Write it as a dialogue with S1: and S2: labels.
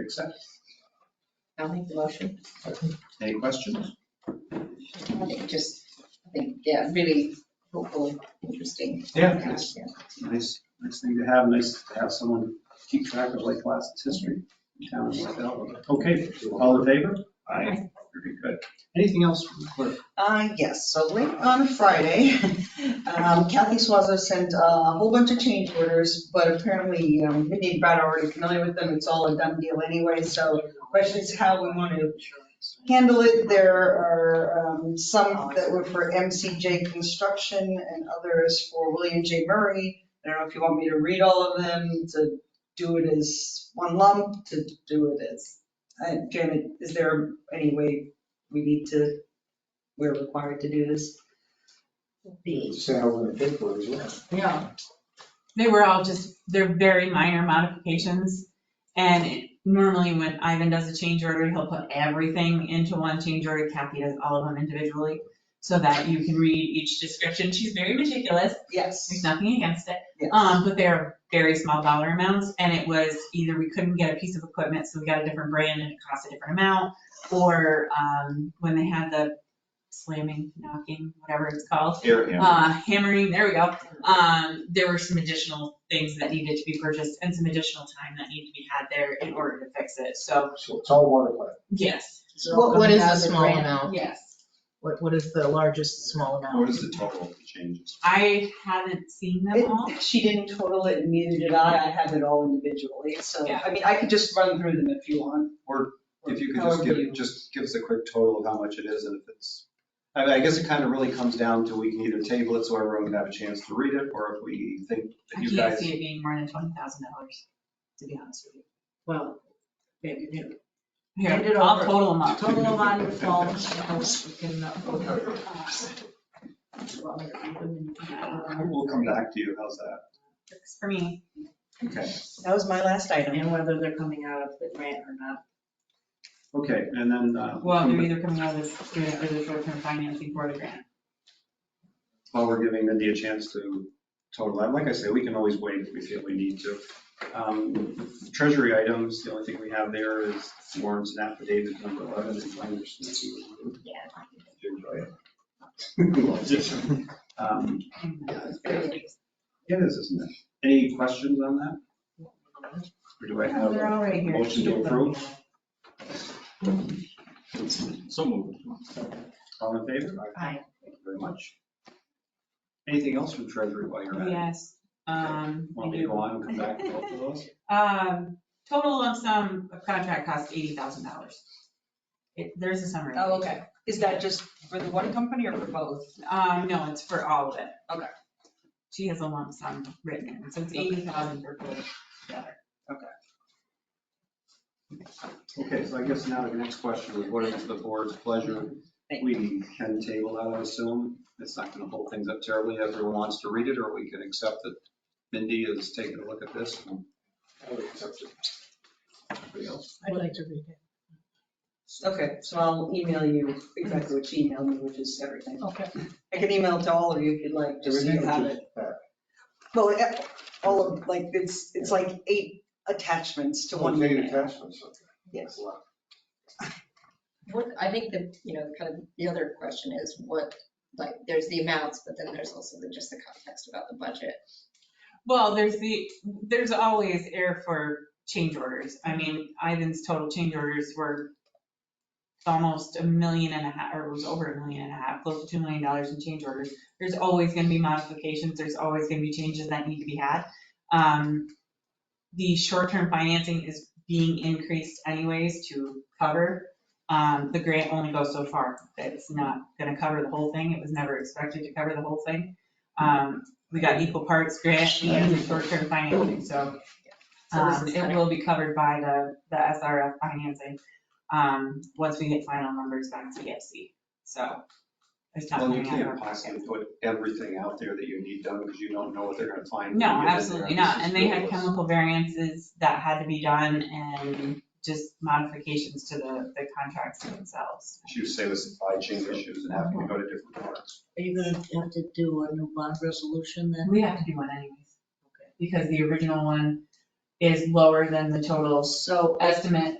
S1: accept.
S2: I'll make the motion.
S1: Any questions?
S2: I think just, I think, yeah, really hopeful, interesting.
S3: Yeah.
S2: Yeah.
S3: Nice, nice thing to have, nice to have someone keep track of Lake Placid's history in town. and what the hell. Okay, all in favor?
S2: Aye.
S3: Very good. Anything else from the clerk?
S4: Uh, yes, so late on Friday, um, Kathy Swaza sent uh, a whole bunch of change orders, but apparently, um, Mindy and Brad are already familiar with them, it's all a done deal anyway, so the question is how we want to handle it. There are, um, some that were for MCJ Construction and others for William J. Murray. I don't know if you want me to read all of them, to do it as one lump, to do it as, uh, Janet, is there any way we need to we're required to do this.
S5: sales and paper as well.
S6: Yeah. They were all just, they're very minor modifications. And normally when Ivan does a change order, he'll put everything into one change order. Kathy does all of them individually so that you can read each description. She's very meticulous. There's
S4: Yes.
S6: nothing against it.
S4: Yes.
S6: Um, but they're very small dollar amounts and it was either we couldn't get a piece of equipment, so we got a different brand and it cost a different amount. Or, um, when they had the slamming, knocking, whatever it's called,
S1: Here, yeah.
S6: uh, hammering, there we go. Um, there were some additional things that needed to be purchased and some additional time that needed to be had there in order to fix it. So,
S5: So it's all water plant.
S6: yes,
S7: What, what is the
S2: $1,000
S7: small
S2: grand.
S7: amount?
S6: yes.
S7: What, what is the largest small amount?
S3: What is the total of the changes?
S6: I haven't seen them all.
S4: It- She didn't total it and neither did I. I had it all individually. So,
S6: Yeah.
S4: I mean, I could just run through them if you want.
S3: Or If you could just
S4: However you-
S3: give, just give us a quick total of how much it is and if it's, I mean, I guess it kind of really comes down to we can either table it so everyone can have a chance to read it, or if we think that
S6: I
S3: you
S6: can't
S3: guys.
S6: see it being more than twenty thousand dollars, to be honest with you. Well, maybe, you know.
S7: Hand it
S6: Here, I'll
S7: over.
S6: total them up.
S7: Total amount involved, we can, uh, vote on it.
S3: We'll come back to you, how's that?
S6: Works For me,
S3: Okay,
S4: That was my last item.
S7: and whether they're coming out of the grant or not.
S3: okay, and then, uh,
S6: well, they're either coming out of this grant or the short-term financing for the grant.
S3: while we're giving Mindy a chance to total that, like I say, we can always wait if we feel we need to. Um, Treasury items, the only thing we have there is warrants and affidavits, number 11, if I understand you. Yeah. Um, It is, isn't it? Any questions on that? Or do I have
S6: They're
S3: a
S6: all right here.
S3: motion to approve?
S5: So moved.
S3: All in favor?
S7: Aye.
S3: Thank you very much. Anything else from Treasury while you're at it?
S6: Yes. Um,
S3: Want me to go on and come back to both of those?
S6: Um, total lump sum of contract cost eighty thousand dollars. It, there's a summary.
S4: Oh, okay. Is that just for the one company or for both?
S6: Um, no, it's for all of it.
S4: Okay.
S6: She has a lump sum written, in, so it's eighty thousand for both together.
S3: Okay, so I guess now the next question is what is the board's pleasure? We can table that, I assume. It's not going to hold things up terribly. Everyone wants to read it, or we can accept that Mindy is taking a look at this and
S5: I would accept it.
S3: everybody else.
S7: I'd like to read it.
S4: Okay, so I'll email you exactly what she emailed me, which is everything.
S7: Okay.
S4: I can email it to all of you if you'd like, just so you
S5: Everything
S4: have
S5: is
S4: it.
S5: just that.
S4: Well, eh, all of, like, it's, it's like eight attachments to one
S5: Oh, data
S4: email.
S5: attachments, okay.
S4: Yes.
S5: Wow.
S2: What, I think the, you know, kind of the other question is what, like, there's the amounts, but then there's also the, just the context about the budget.
S6: Well, there's the, there's always air for change orders. I mean, Ivan's total change orders were almost a million and a half, or it was over a million and a half, close to $2 million in change orders. There's always going to be modifications, there's always going to be changes that need to be had. Um, The short-term financing is being increased anyways to cover. Um, The grant only goes so far. It's not going to cover the whole thing. It was never expected to cover the whole thing. Um, we got equal parts grant and the short-term financing, so
S2: So this
S6: um,
S2: is
S6: it
S2: kind
S6: will be covered by the, the SRF financing, um, once we get final numbers back to EFC, so. it's not
S3: Well, you
S6: coming out of our
S3: can't
S6: pocket.
S3: possibly put everything out there that you need done because you don't know what they're going to find.
S6: No,
S3: when you get in there.
S6: absolutely
S3: This
S6: not,
S3: is
S6: and they had
S3: frivolous.
S6: chemical variances that had to be done and just modifications to the, the contracts themselves.
S3: She was saying with supply chain issues and having to go to different parts.
S7: Are you gonna have to do a new bond resolution then?
S6: We have to do one anyways, because the original one is lower than the total
S4: So
S6: estimate